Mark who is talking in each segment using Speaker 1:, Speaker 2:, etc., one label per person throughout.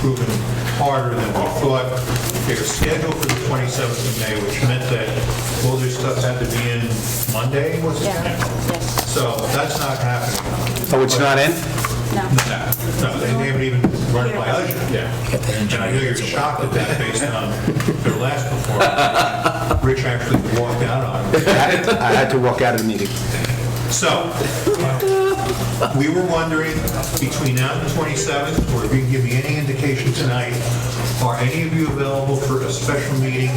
Speaker 1: proven harder than we thought. They were scheduled for the 27th of May, which meant that all their stuff had to be in Monday, was it?
Speaker 2: Yeah, yes.
Speaker 1: So that's not happening.
Speaker 3: Oh, it's not in?
Speaker 2: No.
Speaker 1: No, they haven't even run it by us yet. And I know you're shocked at that based on their last performance. Rich actually walked out on it.
Speaker 3: I had- I had to walk out of the meeting.
Speaker 1: So, we were wondering, between now and the 27th, or if you can give me any indication tonight, are any of you available for a special meeting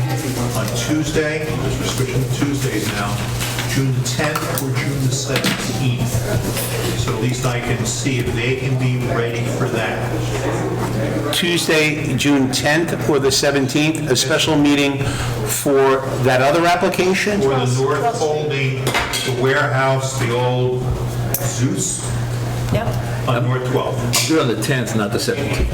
Speaker 1: on Tuesday, because we're switching to Tuesdays now, June the 10th or June the 17th? So at least I can see if they can be ready for that.
Speaker 3: Tuesday, June 10th or the 17th, a special meeting for that other application?
Speaker 1: Or the North Holding, the warehouse, the old Zeus
Speaker 2: Yep.
Speaker 1: on North 12th.
Speaker 4: You're on the 10th, not the 17th.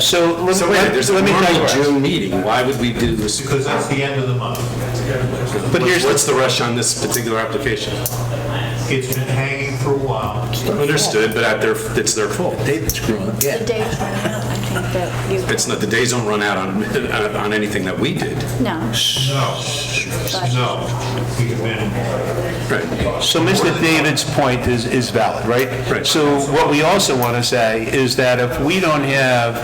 Speaker 3: So let me,
Speaker 5: So wait, there's a
Speaker 3: let me
Speaker 5: normal
Speaker 3: digress.
Speaker 5: June meeting, why would we do this?
Speaker 1: Because that's the end of the month.
Speaker 3: But
Speaker 5: What-
Speaker 3: here's,
Speaker 5: What's the rush on this particular application?
Speaker 1: It's been hanging for a while.
Speaker 5: Understood, but at their, it's their fault.
Speaker 4: David's growing.
Speaker 2: The day's running out, I think that you...
Speaker 5: It's not, the days don't run out on, on on anything that we did.
Speaker 2: No.
Speaker 1: No, no. We've been,
Speaker 5: Right.
Speaker 3: so Mr. David's point is, is valid, right?
Speaker 5: Right.
Speaker 3: So what we also want to say is that if we don't have,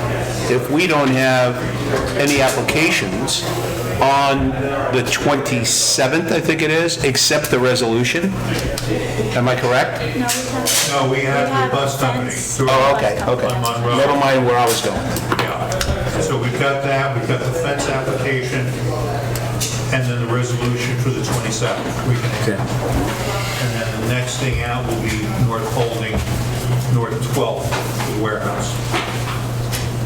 Speaker 3: if we don't have any applications on the 27th, I think it is, except the resolution, am I correct?
Speaker 2: No, we have...
Speaker 1: no, we have the bus company.
Speaker 2: fence.
Speaker 3: Oh, okay, okay.
Speaker 1: On Monroe.
Speaker 3: Never mind where I was going.
Speaker 1: Yeah. So we've got that, we've got the fence application, and then the resolution for the 27th. We can- And then the next thing out will be North Holding, North 12th, the warehouse.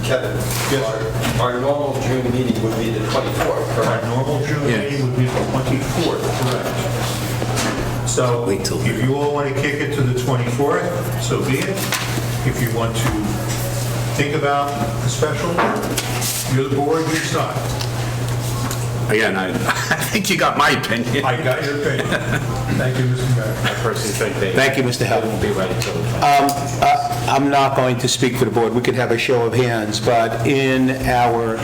Speaker 6: Kevin, our- our normal June meeting would be the 24th,
Speaker 1: Our
Speaker 6: correct?
Speaker 1: normal June meeting would be the 24th, correct? So if you all want to kick it to the 24th, so be it. If you want to think about the special, you're the board, you decide.
Speaker 5: Again, I, I think you got my opinion.
Speaker 1: I got your opinion. Thank you, Mr. Mayor.
Speaker 3: Thank you, Mr. Helen. won't be ready Um, I'm not going to speak for the board. We could have a show of hands, but in our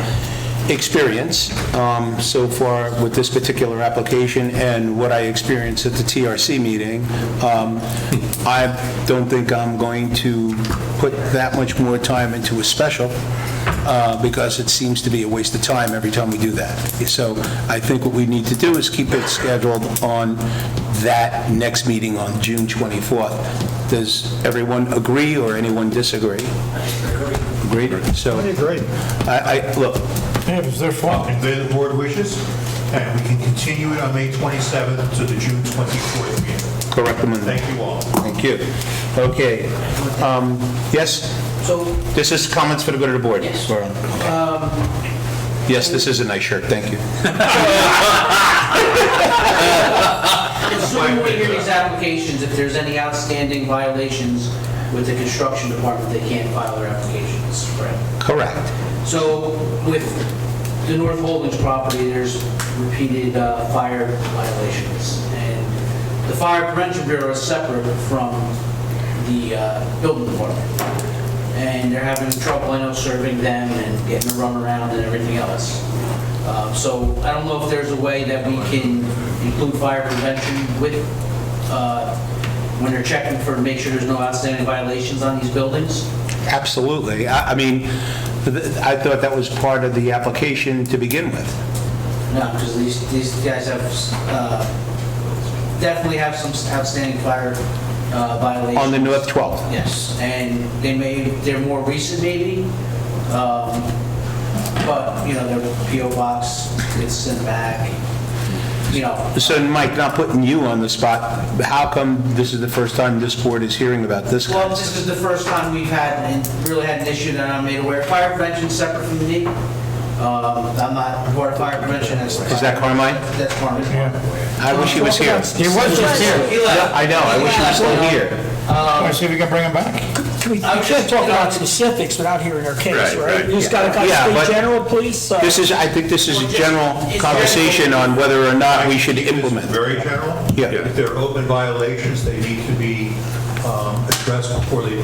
Speaker 3: experience um, so far with this particular application and what I experienced at the TRC meeting, um, I don't think I'm going to put that much more time into a special uh, because it seems to be a waste of time every time we do that. So I think what we need to do is keep it scheduled on that next meeting on June 24th. Does everyone agree or anyone disagree? Agreed? So,
Speaker 7: Great.
Speaker 3: I, I, look,
Speaker 7: Yeah, it was their fault.
Speaker 1: If the board wishes, and we can continue it on May 27th to the June 24th meeting.
Speaker 3: correct them on
Speaker 1: Thank you all.
Speaker 3: Thank you. Okay. Um, Yes?
Speaker 8: So,
Speaker 3: This is comments for the good of the board?
Speaker 8: Yes.
Speaker 3: We're on. Yes, this is a nice shirt, thank you.
Speaker 8: assuming we hear these applications, if there's any outstanding violations with the construction department, they can't file their applications, right?
Speaker 3: Correct.
Speaker 8: So with the North Holdings property, there's repeated uh, fire violations. And the Fire Prevention Bureau is separate from the uh, building department. And they're having trouble, I know, serving them and getting a runaround and everything else. Uh, So I don't know if there's a way that we can include fire prevention with, uh, when they're checking for, make sure there's no outstanding violations on these buildings.
Speaker 3: Absolutely. I I mean, th- I thought that was part of the application to begin with.
Speaker 8: No, because these, these guys have, uh, definitely have some outstanding fire uh, violations.
Speaker 3: On the North 12th.
Speaker 8: Yes, and they may, they're more recent maybe, um, but, you know, their PO box gets sent back, you know.
Speaker 3: So Mike, not putting you on the spot, how come this is the first time this board is hearing about this?
Speaker 8: Well, this is the first time we've had, and really had an issue that I'm made aware. Fire prevention's separate from me. Um, I'm not part of fire prevention. Is
Speaker 3: Is that Carmine?
Speaker 8: That's Carmine.
Speaker 3: I wish he was here.
Speaker 7: He was just here.
Speaker 8: He left.
Speaker 3: I know, I wish he was still here.
Speaker 7: I see if we can bring him back.
Speaker 9: We we can't talk about specifics without hearing their case,
Speaker 5: Right,
Speaker 9: right?
Speaker 5: right.
Speaker 9: You just gotta kind
Speaker 3: Yeah,
Speaker 9: of
Speaker 3: but-
Speaker 9: speak general, please. uh,
Speaker 3: This is, I think this is a general conversation on whether or not we should implement.
Speaker 1: This is Very general.
Speaker 3: Yeah.
Speaker 1: If there are open violations, they need to be um, addressed before they